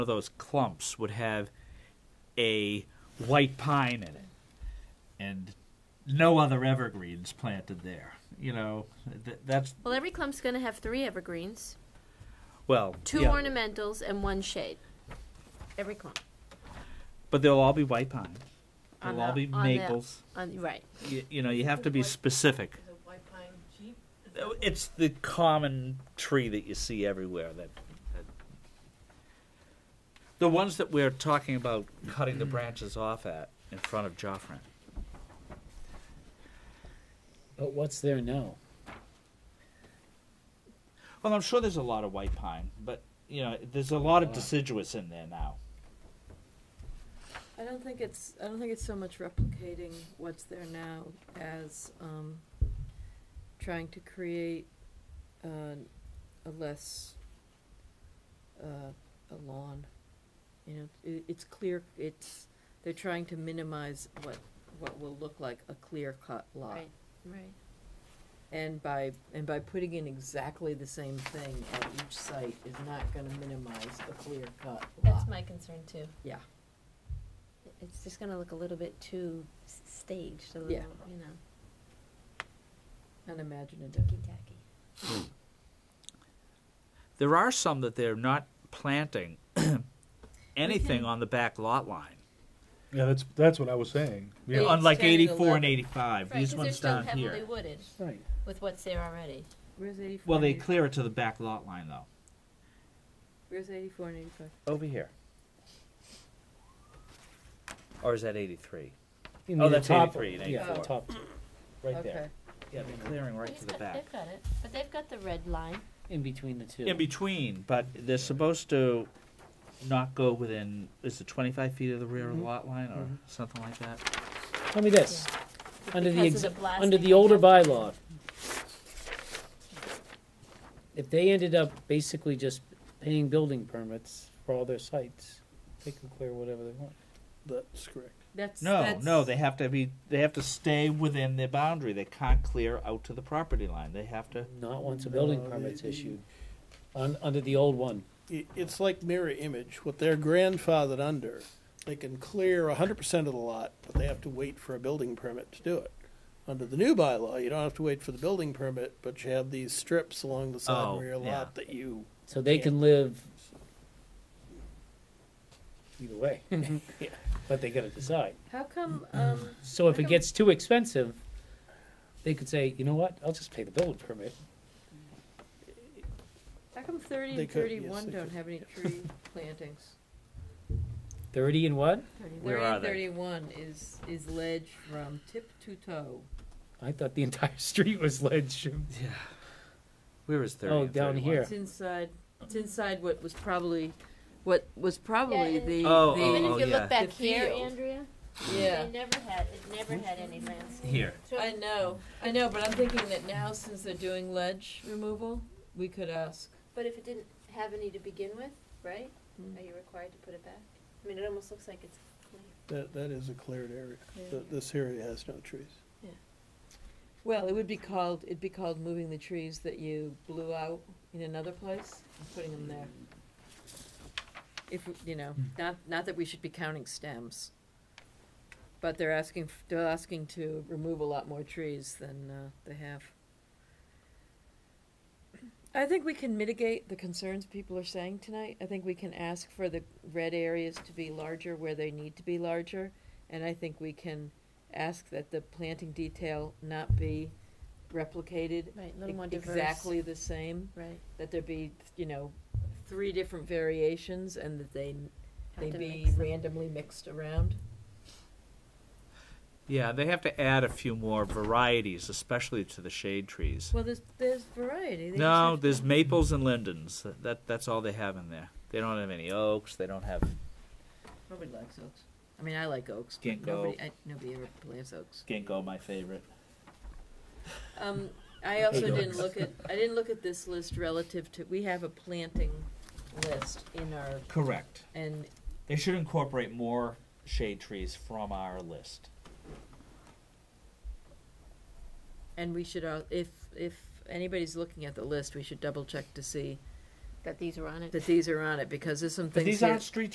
of those clumps would have a white pine in it and no other evergreens planted there. You know, th- that's Well, every clump's going to have three evergreens, well, two yeah, ornamentals, and one shade. Every clump. but they'll all be white pine. On They'll all the- be on the- maples. On, right. You, you know, you have to be specific. Is it white pine cheap? It's the common tree that you see everywhere. That, that the ones that we're talking about cutting the branches off at in front of Joffrin. But what's there now? Well, I'm sure there's a lot of white pine, but you know, there's a lot of Wow. deciduous in there now. I don't think it's, I don't think it's so much replicating what's there now as, um, trying to create, uh, a less, uh, a lawn. You know, it, it's clear, it's, they're trying to minimize what, what will look like a clear-cut lot. Right. Right. And by, and by putting in exactly the same thing at each site is not gonna minimize a clear-cut lot. That's my concern, too. Yeah. It's just going to look a little bit too s- staged, a little, Yeah. you know, Unimaginative. ticky tacky. There are some that they're not planting anything can- on the back lot line, Yeah, that's that's what I was saying. Yeah. Yeah, unlike 10 and 84 and 11. 85. These ones down here. wooded Right. with what's there already. Where's eighty-four? Well, they clear it to the back lot line though. Where's eighty-four and eighty-five? Over here. Or is that 83? You Oh, mean the that's top- 83 and Yeah, the 84. top, Mm. right there, Yeah, they're clearing right He's to the got- back. They've got it, but they've got the red line. in between the two. In between, but they're supposed to not go within, is it 25 feet of the rear of the Mhm. lot line or Mhm. something like that? Tell me this, under the, Because ex- of the blasting, under they the older have to- bylaw, if they ended up basically just paying building permits for all their sites, they can clear whatever they want. that's correct. That's. No, that's- no, they have to be, they have to stay within their boundary. They can't clear out to the property line. They have to, Not once a building No, permit's they- issued, un, under the old one. it, it's like mirror image. What they're grandfathered under, they can clear 100% of the lot, but they have to wait for a building permit to do it. Under the new bylaw, you don't have to wait for the building permit, but you have these strips along the side Oh, rear yeah. lot that you. So they can live either way, Mm-hmm. but they gotta decide. How come, um, So if it gets too expensive, they could say, you know what, I'll just pay the building permit. how come thirty They and could, yes, thirty-one they don't could, have any tree plantings? Thirty and what? Where Thirty and are they? Thirty-one is, is ledge from tip to toe. I thought the entire street was ledge. where is 30 Oh, and down 31? here. It's inside, it's inside what was probably, what was probably and- the. Oh, the- Even oh, if you yeah. look back The here, field. Andrea, Yeah. they never had, it never had any landscape. Here. So- I know, I know, but I'm thinking that now, since they're doing ledge removal, we could ask. But if it didn't have any to begin with, right? Mm. Are you required to put it back? I mean, it almost looks like it's clear. That, that is a cleared area. Yeah. Th- This area has no trees. Well, it would be called, it'd be called moving the trees that you blew out in another place and putting them there. If, you know, not, not that we should be counting stems. But they're asking, f- they're asking to remove a lot more trees than, uh, they have. I think we can mitigate the concerns people are saying tonight. I think we can ask for the red areas to be larger where they need to be larger. And I think we can ask that the planting detail not be replicated Right, a little more diverse. exactly the same, Right. that there be, you know, three different variations and that they, Have they to be mix them. randomly mixed around. Yeah, they have to add a few more varieties, especially to the shade trees. Well, there's, there's variety. They just No, have- there's maples and lindens. That that's all they have in there. They don't have any oaks. They don't have Nobody likes oaks. I mean, I like oaks, but Can't go. nobody, I, nobody ever plants oaks. ginkgo, my favorite. Um, I also Hate didn't oaks. look at, I didn't look at this list relative to, we have a planting list in our, Correct. and They should incorporate more shade trees from our list. uh, And we should, al- if, if anybody's looking at the list, we should double check to see that these are on it. that these are on it, because there's some But things these here. aren't street